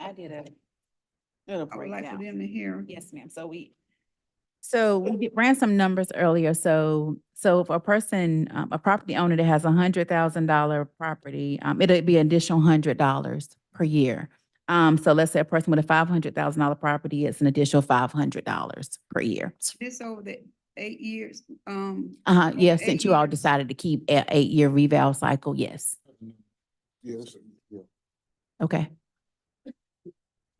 I did a little I would like for breakdown. them to hear. Yes, ma'am. So we, So we ran some numbers earlier, so, so if a person, um, a property owner that has a hundred thousand dollar property, um, it'd be an additional hundred dollars per year. Um, so let's say a person with a five hundred thousand dollar property, it's an additional five hundred dollars per year. This over the eight years, um, Uh, Over yeah, eight since you all years. decided to keep a eight-year reval cycle, yes, Yes, yeah. okay.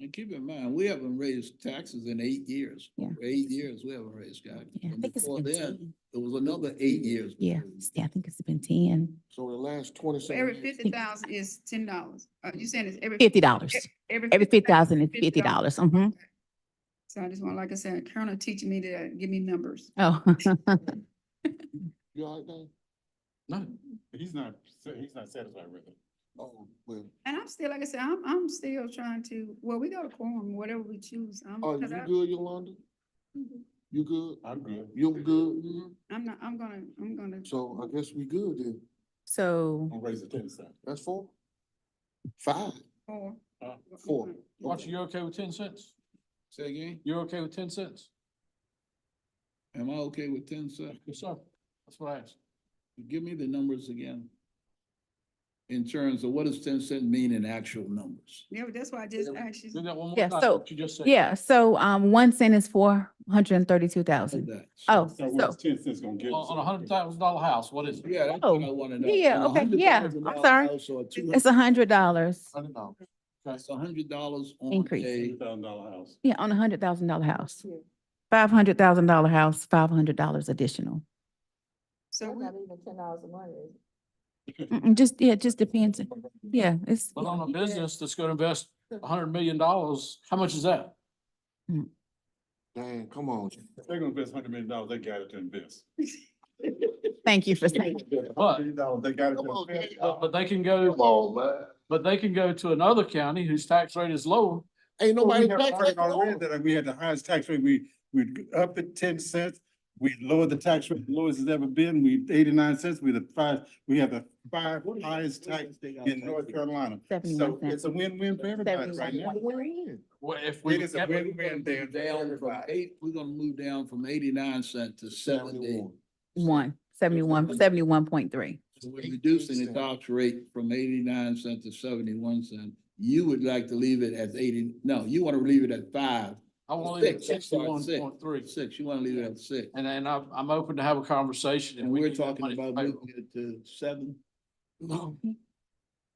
And keep in mind, we haven't raised taxes in eight years. Yeah. For Eight years, we haven't raised taxes. Yeah, I And think it's Before been then, ten. it was another eight years. Yeah, yeah, I think it's been ten, So the last twenty for every seven years, fifty thousand is ten dollars. Uh, you saying it's every? fifty dollars. Every fifty thousand is fifty dollars, mm-hmm, So I just want, like I said, Colonel teaching me to give me numbers. Mm-hmm. oh. you all right, Dave? No, He's not, sa- he's not satisfied with it. Oh, well, And I'm still, like I said, I'm, I'm still trying to, well, we got a quorum, whatever we choose. I'm, are Oh, you 'cause I- good, Yolanda? Mm-hmm. You good? I'm good. You good? Mm-hmm. Mhm. I'm not, I'm gonna, I'm gonna. So I guess we good then. So. I'm raising ten cents. That's four? Five? Four. Uh, Mm-hmm. Four. Watch, Okay. you okay with ten cents? Say again? You're okay with ten cents? Am I okay with ten cents? Yes, sir. That's what I asked. Give me the numbers again. In terms of what does ten cent mean in actual numbers? Yeah, but that's why I just asked Do you. that one more Yeah, time, so- what you just said. Yeah, so um one cent is four hundred and thirty-two thousand. That. Oh, So what's so, ten cents gonna get? On, on a us? hundred thousand dollar house, what is it? Yeah, that's what I Oh, wanna know. yeah, yeah, On a okay, yeah, I'm $100,000 sorry. house or a two it's a hundred dollars. Uh-huh. Hundred dollars. That's a hundred dollars on Increase. a, thousand dollar house. Yeah, on a hundred thousand dollar house. Five hundred thousand dollar house, five hundred dollars additional. So we, Mm-mm, Just, yeah, it just depends. Yeah, it's, but on a business that's gonna invest a hundred million dollars, how much is that? Dang, come on. If They're gonna invest hundred million dollars, they got it to invest. thank you for saying. $100 million dollars, they got it Come to on, invest. But, but they can go, on, man. but they can go to another county whose tax rate is lower. Ain't Well, nobody. we have taxing learned already us. that We had the highest tax rate, we, we up it ten cents, we lowered the tax rate, the lowest it's ever been, we eighty-nine cents, we the five, we have the five highest tax in North Carolina. So Seventy-one it's cents. a win-win for everybody right now. We're in. Well, if we. It is a if we win-win there move for down from everybody. eight, we're gonna move down from eighty-nine cent to seventy. Seventy-one. One, seventy-one, seventy-one point three. So We're 18 reducing the cent. tax rate from eighty-nine cent to seventy-one cent. You would like to leave it at eighty, no, you want to leave it at five. I wanna leave it at three. Six, you want to leave it at six. And then I'm, I'm open to have a conversation. And we're need that talking money to about pay- moving it to seven. No, Well,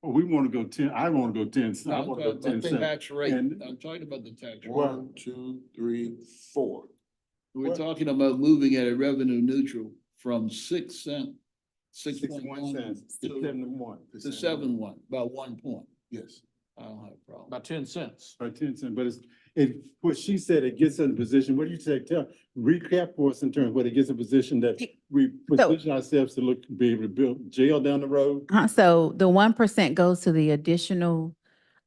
Oh, We wanna go ten, I wanna go ten, cents. I I'm talking wanna go about ten the cents. tax rate. And- I'm talking about the tax rate. One, two, three, four. We're talking about moving at a revenue neutral from six cent, six point Sixty-one one cents, to seventy-one. to seven one, about one point. Yes. I don't have a problem. About ten cents. By ten cents, but it's, it, what she said, it gets in a position, what do you say, tell, recap for us in terms, what it gets in a position that Ye- we so- position ourselves to look, be able to build jail down the road? Uh, so the one percent goes to the additional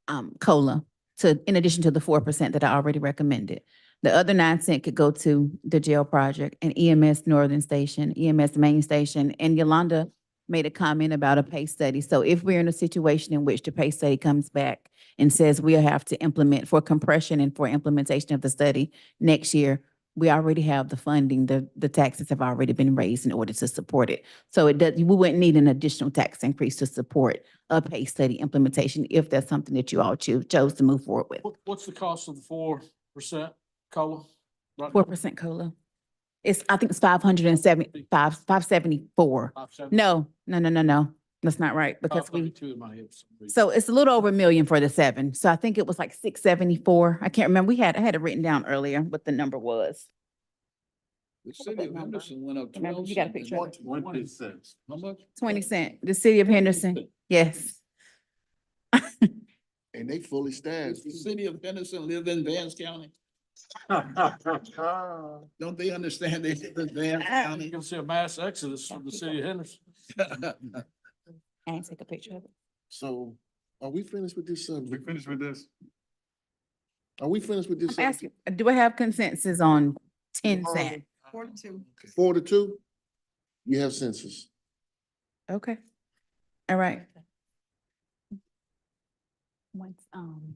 um cola to, in addition to the four percent that I already recommended. The other nine cent could go to the jail project and EMS Northern Station, EMS Main Station, and Yolanda made a comment about a pay study. So if we're in a situation in which the pay study comes back and says we'll have to implement for compression and for implementation of the study next year, we already have the funding, the, the taxes have already been raised in order to support it. So it does, we wouldn't need an additional tax increase to support a pay study implementation if that's something that you all choose, chose to move forward with. What, what's the cost of the four percent COLA? Right Four percent COLA. It's, I think it's five hundred and seventy, five, five seventy-four. now? Five seventy- No, no, no, no, no. That's not right because five we, thirty-two in my head for some reason. so it's a little over a million for the seven. So I think it was like six seventy-four. I can't remember. We had, I had it written down earlier what the number was. The What was city that of number? Henderson went up Remember, twelve you got a cents. picture of One percent. How much? Twenty cent, the city of Henderson. Yes. And they fully Does the staffed. city of Henderson live in Vance County? Don't they understand they live in Vance You're Ah. County? gonna see a mass exodus from the city of Henderson. I didn't take a picture of it. So are we finished with this We subject? finished with this? Are we finished with this? I'm asking, do I have consensus on ten cent? forty-two. Four to two? You have census. Okay. All right. Once, um.